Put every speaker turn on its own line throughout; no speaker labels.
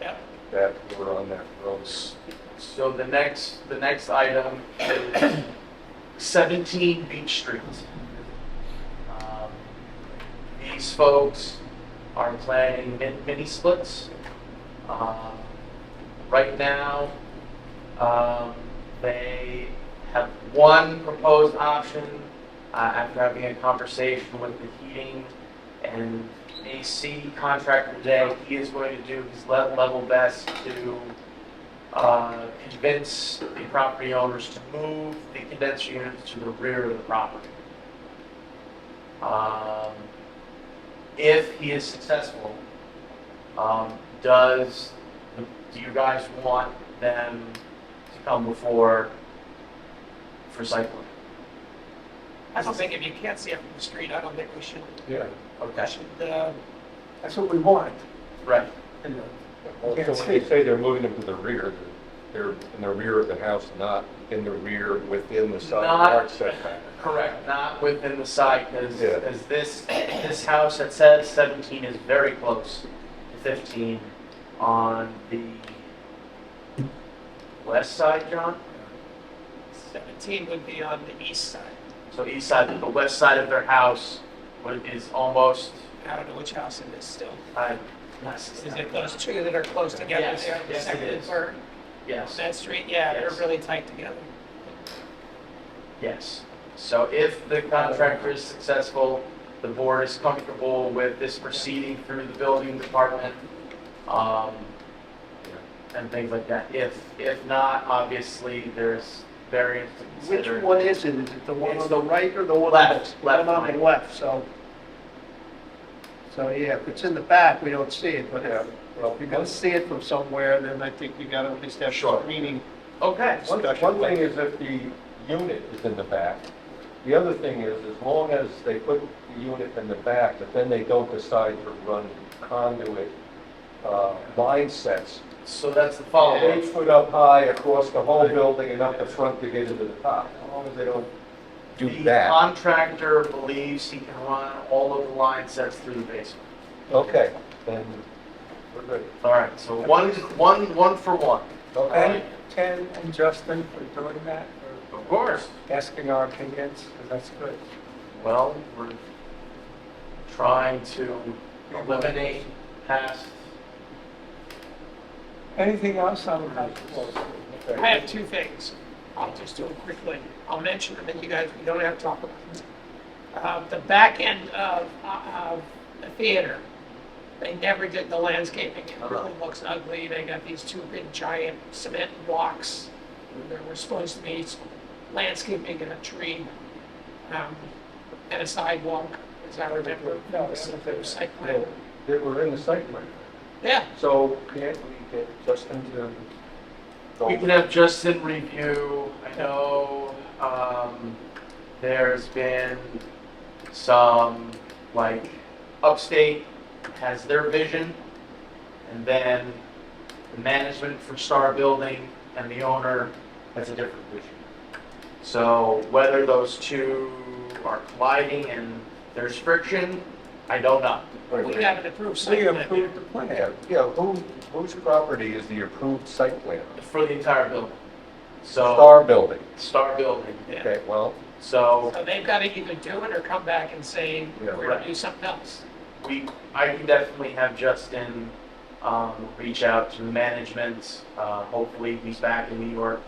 Yep.
that were on that gross.
So the next, the next item is 17 Beach Street. Um, These folks are planning min- mini splits. Um, Right now, um, they have one proposed option uh, after having a conversation with the heating and AC contractor today. He is going to do his le- level best to uh, convince the property owners to move the condenser units to the rear of the property. Um, If he is successful, um, does, do you guys want them to come before for site plan?
I don't think, if you can't see it from the street, I don't think we should,
Yeah.
I
Okay,
should, uh,
That's what we want.
right,
And, uh,
So
Yeah,
when they say they're moving them to the rear, they're in the rear of the house, not in the rear within the side
Not-
yard setback.
correct, not within the site, because,
Yeah.
because this, this house that says 17 is very close to 15 on the west side, John?
17 would be on the east side.
So east side, the west side of their house would- is almost,
I don't know which house it is still.
I,
Is it those two that are close together
Yes,
there, the
yes, it
second and
is.
third?
yes.
That street, yeah, they're
Yes.
really tight together.
Yes. So if the contractor is successful, the board is comfortable with this proceeding through the building department, um, and things like that. If, if not, obviously, there's variance to
Which
consider.
one is it? Is it the one
It's
on the right or the one? on the-
left,
the one
left
on the
one.
left, so. So, yeah, if it's in the back, we don't see it, but
Yeah,
if
well,
you're gonna
one,
see it from somewhere, then I think you gotta at least have
Sure.
screening.
Okay,
one- one thing is if the unit is in the back. The other thing is, as long as they put the unit in the back, but then they don't decide to run conduit, uh, line sets.
so that's the
Eight
follow-up.
foot up high across the whole building and up the front to get into the top, as long as they don't do
The
that.
contractor believes he can run all of the line sets through the basement.
Okay, then we're good.
All right, so one, one, one for one.
And Ken and Justin for doing that,
Of course.
for asking our opinions, 'cause that's good.
Well, we're trying to eliminate past,
Anything else on the?
I have two things. I'll just do them quickly. I'll mention them and you guys, we don't have to talk about them. Uh, the back end of, of the theater, they never did the landscaping. It really looks ugly. They got these two big giant cement blocks. There were supposed to be landscaping and a tree, um, and a sidewalk, as I remember.
No,
It's
it's-
a site
Yeah,
plan.
They were in the site plan.
Yeah,
So can't we get Justin to go?
we can have Justin review. I know, um, there's been some, like, Upstate has their vision, and then the management from Star Building and the owner has a different vision. So whether those two are colliding and there's friction, I don't know.
we got an approved site
We
plan.
approved the plan.
Yeah, yeah, who, whose property is the approved site plan?
for the entire building. So,
Star Building.
Star Building.
Oh. Yeah.
Okay, well,
So
So they've got to either do it or come back and say,
Yeah,
we're going
right.
to do something else.
we, I can definitely have Justin, um, reach out to management. Uh, hopefully he's back in New York,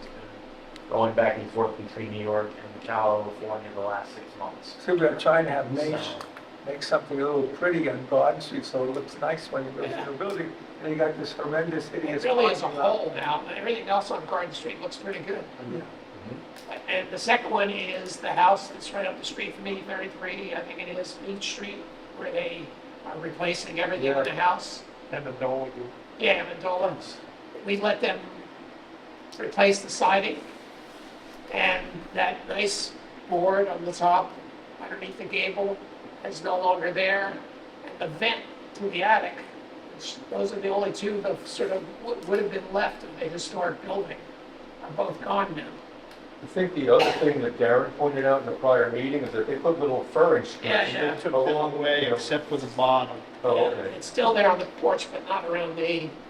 going back and forth between New York and California the last six months.
So we're trying to have nice,
So-
make something a little pretty on Broad Street, so it looks nice when you go to the building. And you got this horrendous hideous.
It really is a
parking lot.
whole now, and everything else on Garden Street looks pretty good. Mm-hmm.
Yeah.
And the second one is the house that's right up the street from me, 33, I think it is Beach Street, where they are replacing everything in the house.
And the dog.
Yeah, Mandola. We let them replace the siding and that nice board on the top underneath the gable is no longer there. And the vent to the attic, which those are the only two that sort of would- would have been left of the historic building, are both gone now.
I think the other thing that Darren pointed out in the prior meeting is that they put little fur
Yeah, yeah.
instructions along the way.
except for the bottom.
Oh, okay.
It's still there on the porch, but not around the